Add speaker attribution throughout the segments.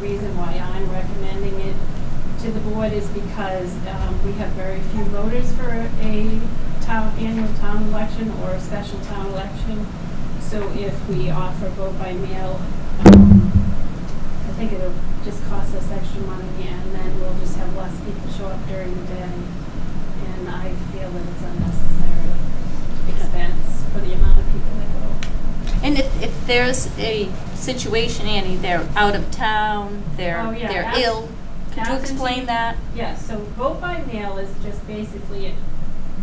Speaker 1: reason why I'm recommending it to the board is because um, we have very few voters for a town, annual town election or a special town election. So if we offer vote by mail, um, I think it'll just cost us extra money and then we'll just have less people show up during the day. And I feel that it's unnecessary expense for the amount of people that go.
Speaker 2: And if, if there's a situation, Annie, they're out of town,
Speaker 1: Oh,
Speaker 2: they're,
Speaker 1: yeah,
Speaker 2: they're
Speaker 1: abs-
Speaker 2: ill, could you
Speaker 1: absentee-
Speaker 2: explain that?
Speaker 1: Yeah, so vote by mail is just basically, it.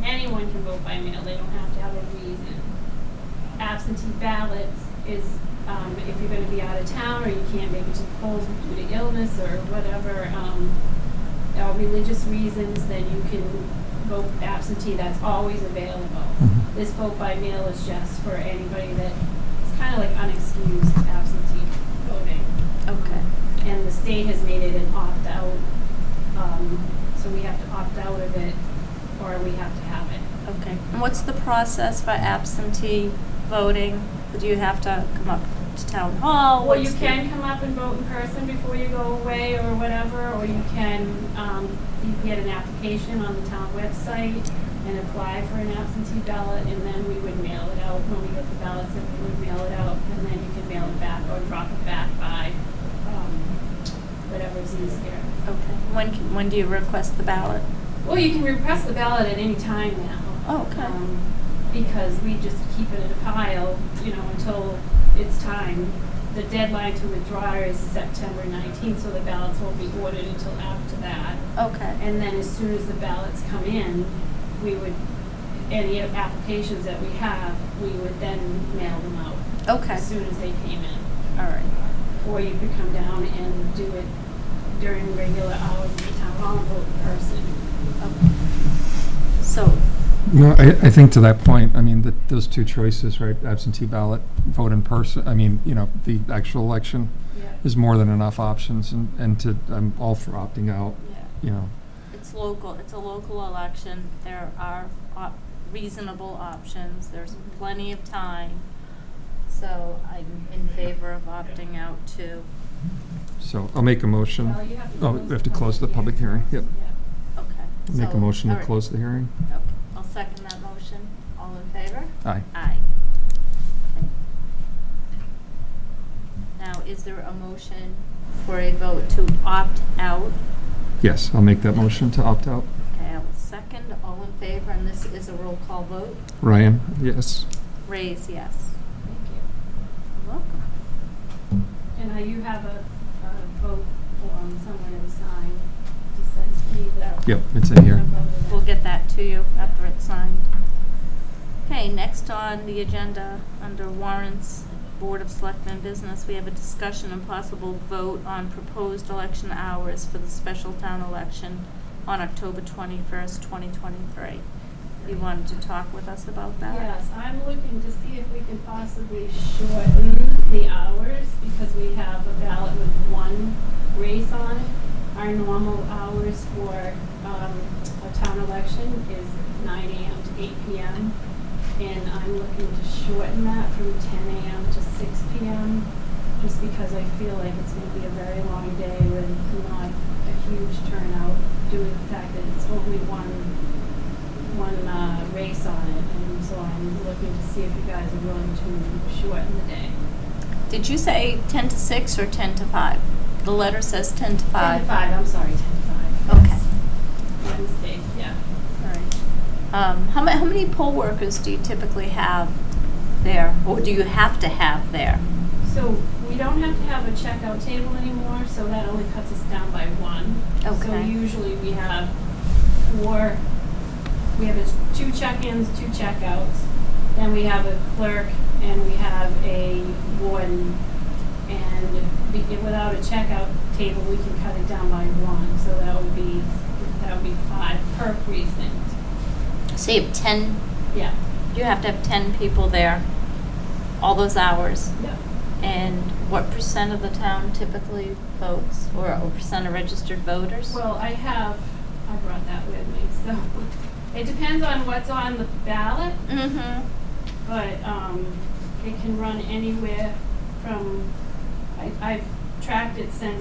Speaker 1: anyone can vote by mail, they don't have to have a reason. Absentee ballots is, um, if you're gonna be out of town or you can't make it to the polls due to illness or whatever, um, uh, religious reasons, then you can vote absentee, that's always available.
Speaker 3: Mhm.
Speaker 1: This vote by mail is just for anybody that, it's kinda like unexcused absentee voting
Speaker 2: Okay.
Speaker 1: and the state has made it an opt-out, um, so we have to opt out of it, or we have to have it.
Speaker 2: Okay. And what's the process for absentee voting? Do you have to come up to town hall?
Speaker 1: Well, you
Speaker 2: Oh, What's the-
Speaker 1: can come up and vote in person before you go away or whatever, or you can, um, you can get an application on the town website and apply for an absentee ballot, and then we would mail it out, when we get the ballots, and we would mail it out, and then you can mail it back or drop it back by, um, whatever's easier.
Speaker 2: Okay. When, can- when do you request the ballot?
Speaker 1: Well, you can repress the ballot at any time now.
Speaker 2: Oh, okay.
Speaker 1: Um, Because we just keep it in a pile, you know, until it's time. The deadline to withdraw is September nineteenth, so the ballots won't be ordered until after that.
Speaker 2: Okay.
Speaker 1: And then as soon as the ballots come in, we would, any applications that we have, we would then mail them out
Speaker 2: Okay.
Speaker 1: as soon as they came in.
Speaker 2: All right.
Speaker 1: Or you could come down and do it during regular hours at the town hall and vote in person.
Speaker 2: Okay. So,
Speaker 3: No, I, I think to that point, I mean, that, those two choices, right, absentee ballot, vote in person, I mean, you know, the actual election
Speaker 1: Yeah.
Speaker 3: is more than enough options, and, and to, I'm all for opting out,
Speaker 2: yeah.
Speaker 3: you know.
Speaker 2: It's local, it's a local election, there are op- reasonable options, there's plenty of time. So I'm in favor of opting out too.
Speaker 3: So I'll make a motion.
Speaker 1: Well, you have to
Speaker 3: Oh,
Speaker 1: close
Speaker 3: we have to close the public hearing, yep.
Speaker 2: Okay.
Speaker 3: Make
Speaker 2: so-
Speaker 3: a motion
Speaker 2: all
Speaker 3: to
Speaker 2: right.
Speaker 3: close the hearing.
Speaker 2: Okay, I'll second that motion. All in favor?
Speaker 3: Aye.
Speaker 2: Aye. Okay. Now, is there a motion for a vote to opt out?
Speaker 3: Yes, I'll make that motion to opt out.
Speaker 2: Okay, I will second, all in favor, and this is a roll call vote.
Speaker 3: Ryan, yes.
Speaker 2: Raise yes.
Speaker 1: Thank you.
Speaker 2: You're Welcome.
Speaker 1: And uh, you have a, a vote form somewhere to sign to send to me that.
Speaker 3: Yep, it's in here.
Speaker 2: We'll get that to you after it's signed. Okay, next on the agenda, under warrants, Board of Selectmen business, we have a discussion and possible vote on proposed election hours for the special town election on October twenty-first, twenty twenty-three. You wanted to talk with us about that?
Speaker 1: Yes, I'm looking to see if we can possibly shorten the hours because we have a ballot with one race on it. Our normal hours for, um, a town election is nine AM to eight PM. And I'm looking to shorten that from ten AM to six PM, just because I feel like it's gonna be a very long day with not a huge turnout due to the fact that it's only one, one, uh, race on it. And so I'm looking to see if you guys are willing to shorten the day.
Speaker 2: Did you say ten to six or ten to five? The letter says ten to
Speaker 1: Ten
Speaker 2: five.
Speaker 1: to five, I'm sorry, ten to five.
Speaker 2: Okay.
Speaker 1: Wednesday, yeah.
Speaker 2: Alright. Um, how ma- how many poll workers do you typically have there, or do you have to have there?
Speaker 1: So we don't have to have a checkout table anymore, so that only cuts us down by one. So
Speaker 2: Okay.
Speaker 1: usually we have four, we have a- two check-ins, two checkouts. Then we have a clerk and we have a warden. And be- without a checkout table, we can cut it down by one, so that would be, that would be five per precinct.
Speaker 2: So you have ten,
Speaker 1: Yeah,
Speaker 2: you have to have ten people there, all those hours,
Speaker 1: yeah.
Speaker 2: and what percent of the town typically votes, or or percent of registered voters?
Speaker 1: Well, I have, I brought that with me, so it depends on what's on the ballot,
Speaker 2: Mm-hmm,
Speaker 1: but um, it can run anywhere from, I- I've tracked it since